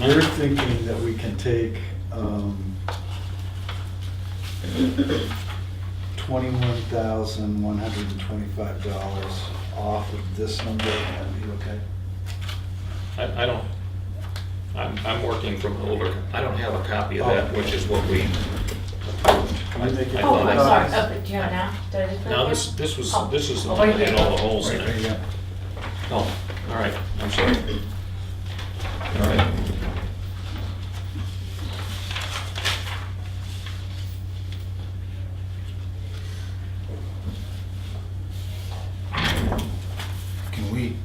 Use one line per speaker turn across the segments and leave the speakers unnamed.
We're thinking that we can take um, 21,125 dollars off of this number, that'd be okay?
I, I don't, I'm, I'm working from older, I don't have a copy of that, which is what we,
Can we make it?
I
Oh,
thought
I'm
I-
sorry, oh, do you have now? Did I just put it
now
there?
this, this was,
Oh.
this is the
Oh,
one
wait,
that had all the
wait.
holes in
Right,
it.
yeah.
Oh, all right, I'm sorry. All right.
Can we,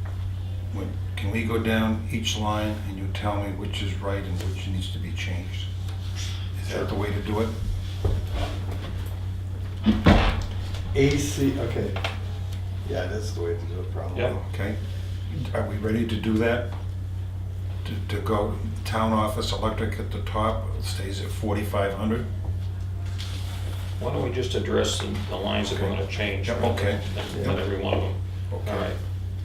wait, can we go down each line and you tell me which is right and which needs to be changed? Is that the way to do it?
AC, okay. Yeah, that's the way to do it, probably.
Yep.
Okay? Are we ready to do that? To, to go town office electric at the top stays at 4,500?
Why don't we just address the, the lines that we're gonna change?
Yeah, okay.
Than than every one of them.
Okay.
All right,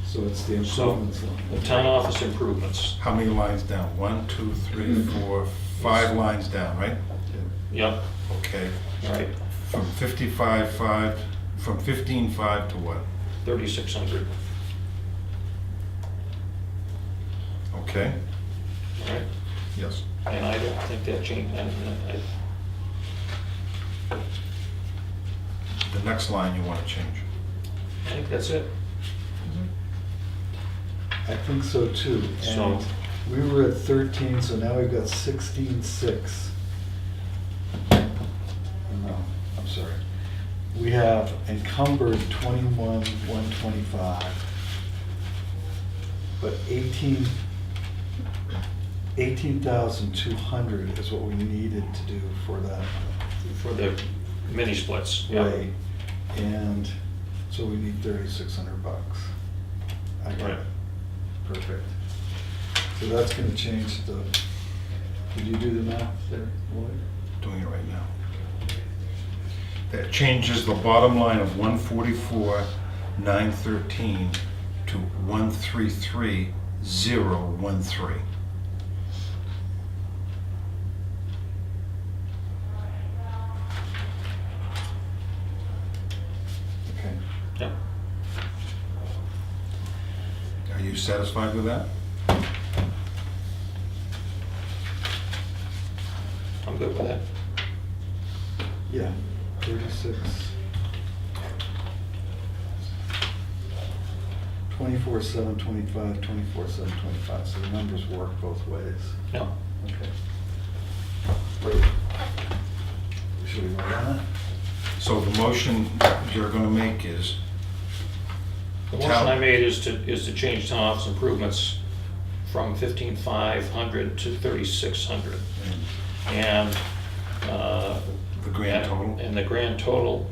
So it's the
so,
improvements. line.
the town office improvements,
How many lines down? One, two, three, four, five lines down, right?
Yeah.
yep,
Okay.
all right,
From 55.5, from 15.5 to what?
thirty-six hundred,
Okay?
all right?
Yes.
And I don't think that changed, and I,
The next line you want to change.
I think that's it.
I think so too.
So-
And we were at 13, so now we've got 16.6. No, I'm sorry. We have encumbered 21, 125. But 18, 18,200 is what we needed to do for that
For the mini splits, yeah.
rate. And so we need 3,600 bucks. I got
Right.
it. Perfect. So that's gonna change the, did you do the math there, Lloyd?
doing it right now. That changes the bottom line of one forty-four, nine thirteen to one three three, zero one three.
Okay.
Yep.
Are you satisfied with that?
I'm good with that.
Yeah, thirty-six. Twenty-four, seven, twenty-five, twenty-four, seven, twenty-five, so the numbers work both ways.
Yeah.
Okay. Wait. Should we vote on that?
So the motion you're gonna make is,
The motion I made is to, is to change town office improvements from fifteen five hundred to thirty-six hundred. And, uh.
um, The grand
and-
total?
And the grand total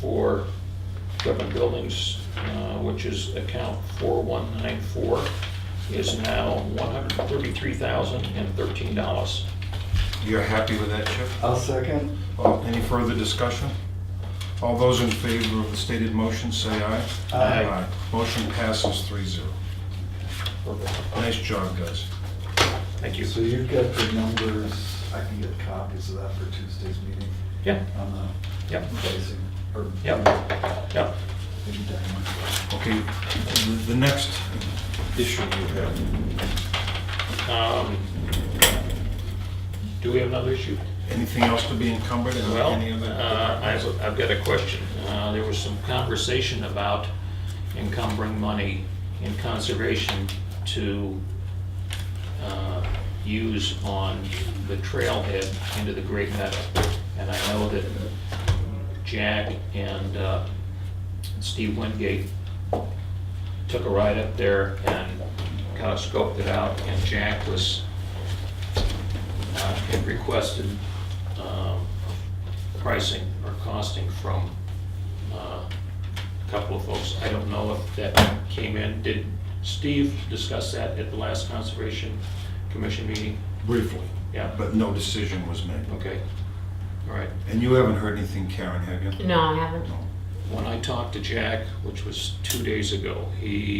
for government buildings, uh, which is account four one nine four, is now one hundred thirty-three thousand and thirteen dollars.
you're happy with that, Chip?
I'll second.
Oh, Any further discussion? All those in favor of the stated motion, say aye.
Aye.
Motion passes three zero. Nice job, guys.
Thank you.
So you've got the numbers, I can get copies of that for Tuesday's meeting
Yeah,
on the
yeah,
pricing, or
yeah, yeah.
maybe Diane.
Okay, the- the next issue you have.
Um, Do we have another issue?
Anything else to be encumbered in
Well,
any of
uh,
that?
I've, I've got a question. Uh, There was some conversation about encumbering money in conservation to uh, use on the trailhead into the Great Meadow. And I know that Jack and uh, Steve Wingate took a ride up there and kind of scoped it out, and Jack was, uh, had requested um, pricing or costing from uh, a couple of folks. I don't know if that came in. Did Steve discuss that at the last Conservation Commission meeting?
Briefly,
Yeah,
but no decision was made.
okay, all right.
And you haven't heard anything, Karen, have you?
No, I haven't.
No.
When I talked to Jack, which was two days ago, he